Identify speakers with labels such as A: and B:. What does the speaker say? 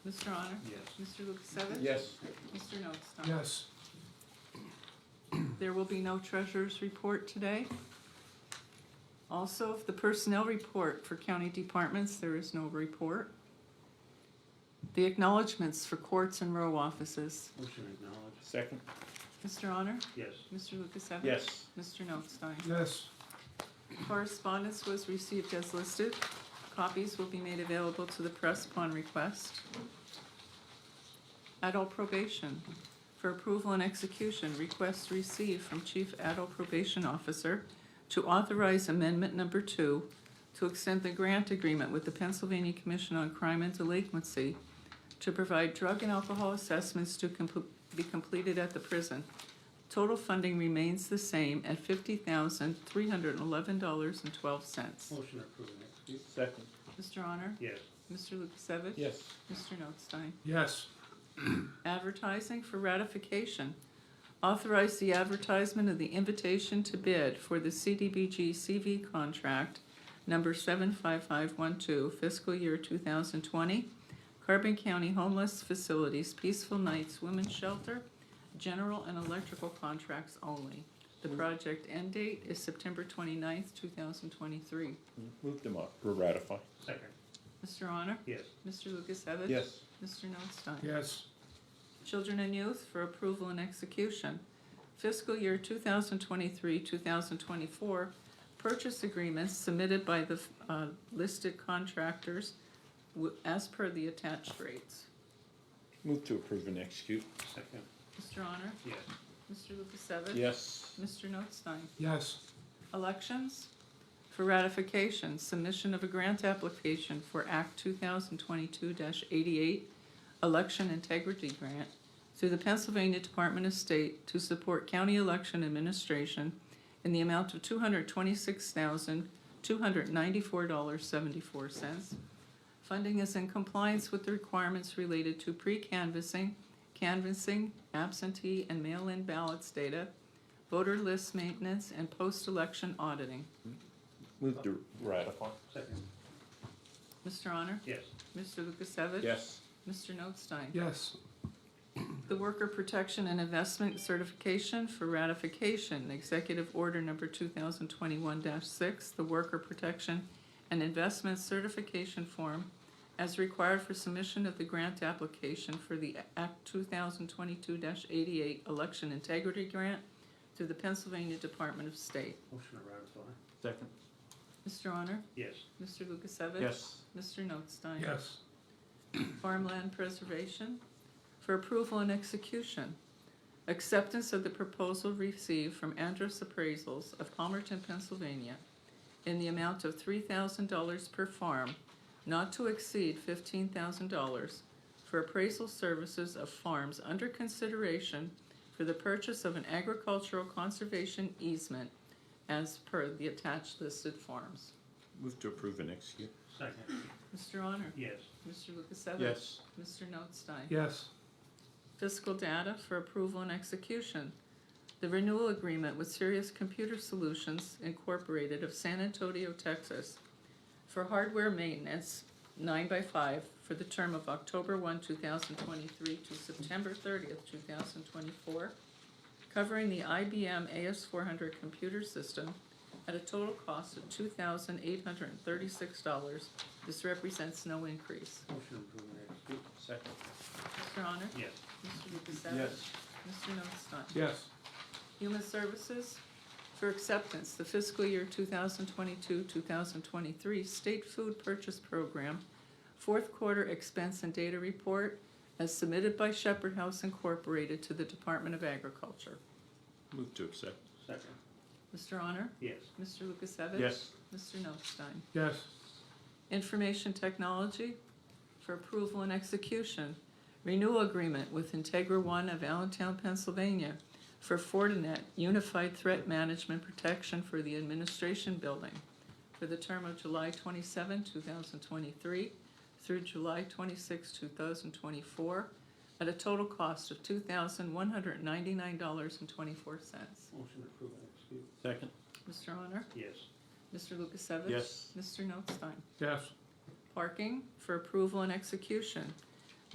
A: Mr. Honor?
B: Yes.
A: Mr. Lukasevich?
C: Yes.
A: Mr. Notstein?
D: Yes.
A: There will be no treasurer's report today. Also, if the personnel report for county departments, there is no report. The acknowledgements for courts and row offices.
B: Motion acknowledged.
C: Second?
A: Mr. Honor?
B: Yes.
A: Mr. Lukasevich?
C: Yes.
A: Mr. Notstein?
D: Yes.
A: Correspondence was received as listed. Copies will be made available to the press upon request. Adult probation. For approval and execution, request received from Chief Adult Probation Officer to authorize amendment number two to extend the grant agreement with the Pennsylvania Commission on Crime and Delinquency to provide drug and alcohol assessments to compl- be completed at the prison. Total funding remains the same at fifty thousand, three hundred and eleven dollars and twelve cents.
B: Motion approved and executed.
C: Second?
A: Mr. Honor?
B: Yes.
A: Mr. Lukasevich?
C: Yes.
A: Mr. Notstein?
D: Yes.
A: Advertising for ratification. Authorize the advertisement of the invitation to bid for the CDBG CV contract number seven five five one two fiscal year two thousand twenty. Carbon County Homeless Facilities Peaceful Nights Women's Shelter, general and electrical contracts only. The project end date is September twenty-ninth, two thousand twenty-three.
C: Move them up or ratify?
B: Second.
A: Mr. Honor?
B: Yes.
A: Mr. Lukasevich?
C: Yes.
A: Mr. Notstein?
D: Yes.
A: Children and Youth for approval and execution. Fiscal year two thousand twenty-three, two thousand twenty-four, purchase agreements submitted by the uh, listed contractors wi- as per the attached rates.
C: Move to approve and execute?
B: Second.
A: Mr. Honor?
B: Yes.
A: Mr. Lukasevich?
C: Yes.
A: Mr. Notstein?
D: Yes.
A: Elections for ratification, submission of a grant application for Act two thousand twenty-two eighty-eight, Election Integrity Grant through the Pennsylvania Department of State to support county election administration in the amount of two hundred twenty-six thousand, two hundred ninety-four dollars, seventy-four cents. Funding is in compliance with the requirements related to pre-canvassing, canvassing, absentee, and mail-in ballots data, voter list maintenance, and post-election auditing.
C: Move to ratify?
B: Second.
A: Mr. Honor?
B: Yes.
A: Mr. Lukasevich?
C: Yes.
A: Mr. Notstein?
D: Yes.
A: The Worker Protection and Investment Certification for Ratification, Executive Order Number two thousand twenty-one six, the Worker Protection and Investment Certification Form as required for submission of the grant application for the Act two thousand twenty-two eighty-eight Election Integrity Grant through the Pennsylvania Department of State.
B: Motion to ratify.
C: Second?
A: Mr. Honor?
B: Yes.
A: Mr. Lukasevich?
C: Yes.
A: Mr. Notstein?
D: Yes.
A: farmland preservation for approval and execution. Acceptance of the proposal received from Andrus Appraisals of Palmerton, Pennsylvania in the amount of three thousand dollars per farm, not to exceed fifteen thousand dollars for appraisal services of farms under consideration for the purchase of an agricultural conservation easement as per the attached listed forms.
C: Move to approve and execute?
B: Second.
A: Mr. Honor?
B: Yes.
A: Mr. Lukasevich?
C: Yes.
A: Mr. Notstein?
D: Yes.
A: Fiscal data for approval and execution. The renewal agreement with Sirius Computer Solutions Incorporated of San Antonio, Texas for hardware maintenance nine by five for the term of October one, two thousand twenty-three to September thirtieth, two thousand twenty-four, covering the IBM AS four hundred computer system at a total cost of two thousand eight hundred and thirty-six dollars. This represents no increase.
B: Motion approved and executed.
C: Second?
A: Mr. Honor?
B: Yes.
A: Mr. Lukasevich? Mr. Notstein?
D: Yes.
A: Human Services for acceptance, the fiscal year two thousand twenty-two, two thousand twenty-three State Food Purchase Program, fourth quarter expense and data report as submitted by Shepherd House Incorporated to the Department of Agriculture.
C: Move to accept?
B: Second.
A: Mr. Honor?
B: Yes.
A: Mr. Lukasevich?
C: Yes.
A: Mr. Notstein?
D: Yes.
A: Information Technology for approval and execution. Renewal agreement with Integra One of Allentown, Pennsylvania for Fortinet Unified Threat Management Protection for the Administration Building for the term of July twenty-seven, two thousand twenty-three through July twenty-six, two thousand twenty-four at a total cost of two thousand one hundred ninety-nine dollars and twenty-four cents.
B: Motion approved and executed.
C: Second?
A: Mr. Honor?
B: Yes.
A: Mr. Lukasevich?
C: Yes.
A: Mr. Notstein?
D: Yes.
A: Parking for approval and execution.